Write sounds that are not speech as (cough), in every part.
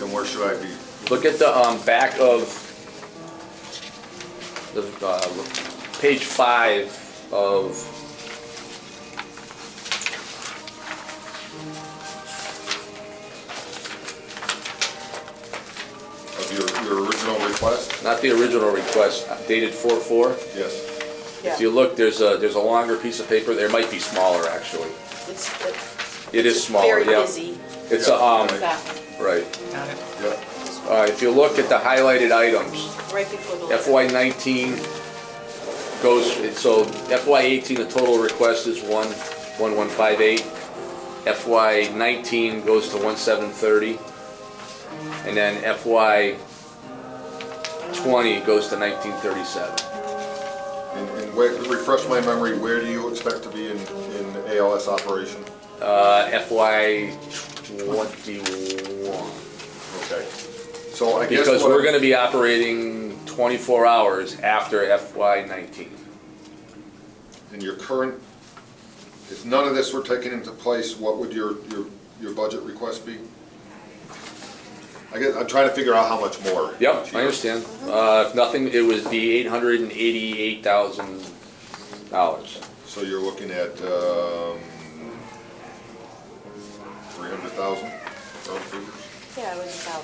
where should I be? Look at the um, back of the uh, page five of. Of your, your original request? Not the original request, uh, dated four four. Yes. If you look, there's a, there's a longer piece of paper, there might be smaller, actually. It's it's It is smaller, very yeah. busy. It's a, um, That right. Got it. Yeah. Uh, if you look at the highlighted items, one, right before the letter. FY nineteen goes, so FY eighteen, the total request is one, one one five eight. FY nineteen goes to one seven thirty. And then FY twenty goes to nineteen thirty-seven. And, and where, refresh my memory, where do you expect to be in, in ALS operation? Uh, FY twenty-one. Okay. So I guess. Because what we're I- gonna be operating twenty-four hours after FY nineteen. And your current, if none of this were taken into place, what would your, your, your budget request be? I guess, I'm trying to figure out how much more. Yep, I understand. Uh, if nothing, it was the eight hundred and eighty-eight thousand dollars. So you're looking at, um, three hundred thousand, round figures, Yeah, it was about,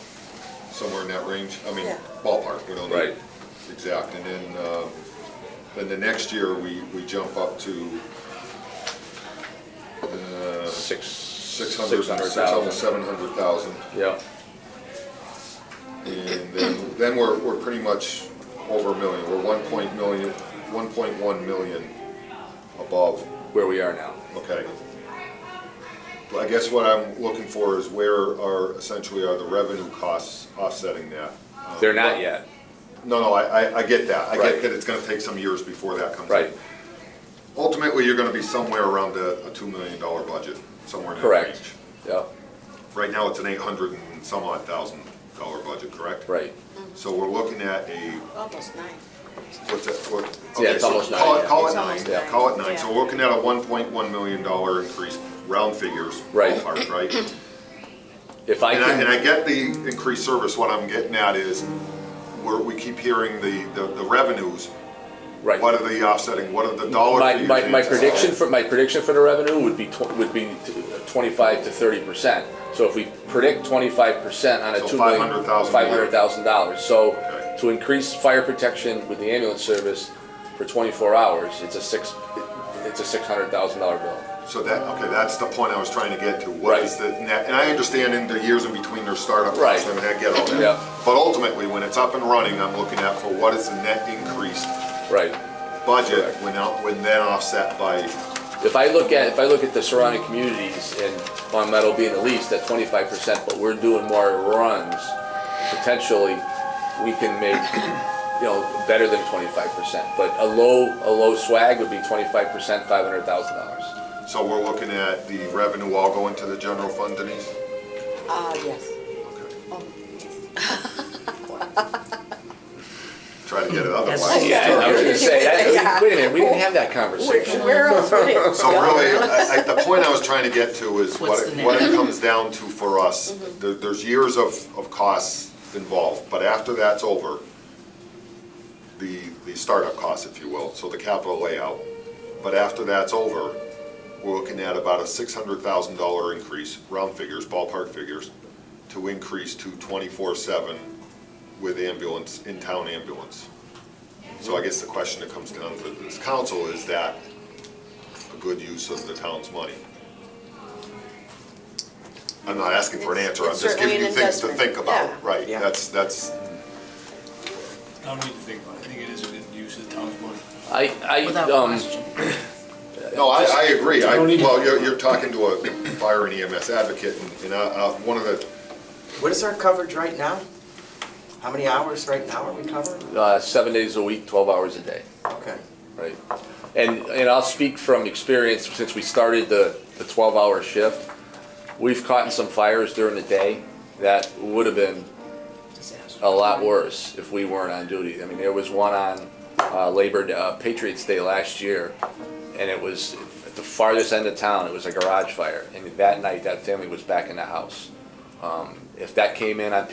somewhere in that range, I mean, Yeah. ballpark, we don't know. Right. Exact, and then, um, then the next year, we, we jump up to, uh, Six. six hundred, six hundred, seven hundred thousand. Yep, And then, then we're, we're pretty much over a million, we're one point million, one point one million above, where we are now. okay. Well, I guess what I'm looking for is where are, essentially are the revenue costs offsetting that? Uh, They're not yet, No, no, I, I, I get that, I get Right. that it's gonna take some years before that comes in. right, Ultimately, you're gonna be somewhere around a, a two million dollar budget, somewhere in that range. correct. Yep, Right now, it's an eight hundred and some odd thousand dollar budget, correct? right. So we're looking at a almost nine. What's that, what? Yeah, okay, it's so almost call nine, it- yeah. Call it nine, call it It's almost nine, nine, so yeah. we're looking at a one point one million dollar increase, round figures. Right. ballpark, Right? If (clears throat) I And I, and can, I get the increased service, what I'm getting at is, we're, we keep hearing the, the the revenues, right. what are the offsetting, what are the dollar My, figures? my, my they- prediction for, my prediction for the revenue would be, tw- would be twenty-five to thirty percent. So if we predict twenty-five percent on a So two million. $500,000. Five hundred thousand dollars, so Okay. to increase fire protection with the ambulance service for twenty-four hours, it's a six, it's a six hundred thousand dollar bill. So that, okay, that's the point I was trying to get to, what Right. is the net, and I understand in the years in between their startup Right. costs, I mean, I get all that. Yeah. But ultimately, when it's up and running, I'm looking at for what is the net increase Right. budget Correct. when out, when then offset by If I look at, if I look at the surrounding communities and Long Meadow being the least at twenty-five percent, but we're doing more runs, potentially, we can make, you know, better than twenty-five percent. But a low, a low swag would be twenty-five percent, five hundred thousand dollars. So we're looking at the revenue all going to the general fund, Denise? Ah, yes. Okay. Um, Try to get it Yes. otherwise. Yeah, I was gonna say, Yeah. I- wait a minute, we didn't have that Where conversation. where else (laughs) would it? So really, I, I, the point I was trying to get to is What's what, the it- what it comes down to for us. There, there's years of, of costs involved, but after that's over, the, the startup costs, if you will, so the capital layout. But after that's over, we're looking at about a six hundred thousand dollar increase, round figures, ballpark figures, to increase to twenty-four seven with ambulance, in-town ambulance. So I guess the question that comes down to this council is that a good use of the town's money? I'm not asking for an answer, I'm It's just giving you certainly an things to investment, think about, yeah. right? Yeah. That's, that's, I don't need to think about it. I think it is a good use of the town's money. I, I, Without um, question. No, I, I agree. I, I don't even- well, you're, you're talking to a fire and EMS advocate, and, and I, I, one of the, What is our coverage right now? How many hours right now are we covered? uh, seven days a week, twelve hours a day. Okay. Right. And, and I'll speak from experience, since we started the, the twelve-hour shift, we've caught in some fires during the day that would have been a lot worse if we weren't on duty. I mean, there was one on, uh, Labor, Day- uh, Patriots Day last year, and it was at the farthest end of town, it was a garage fire, and that night, that family was back in the house. Um, if that came in on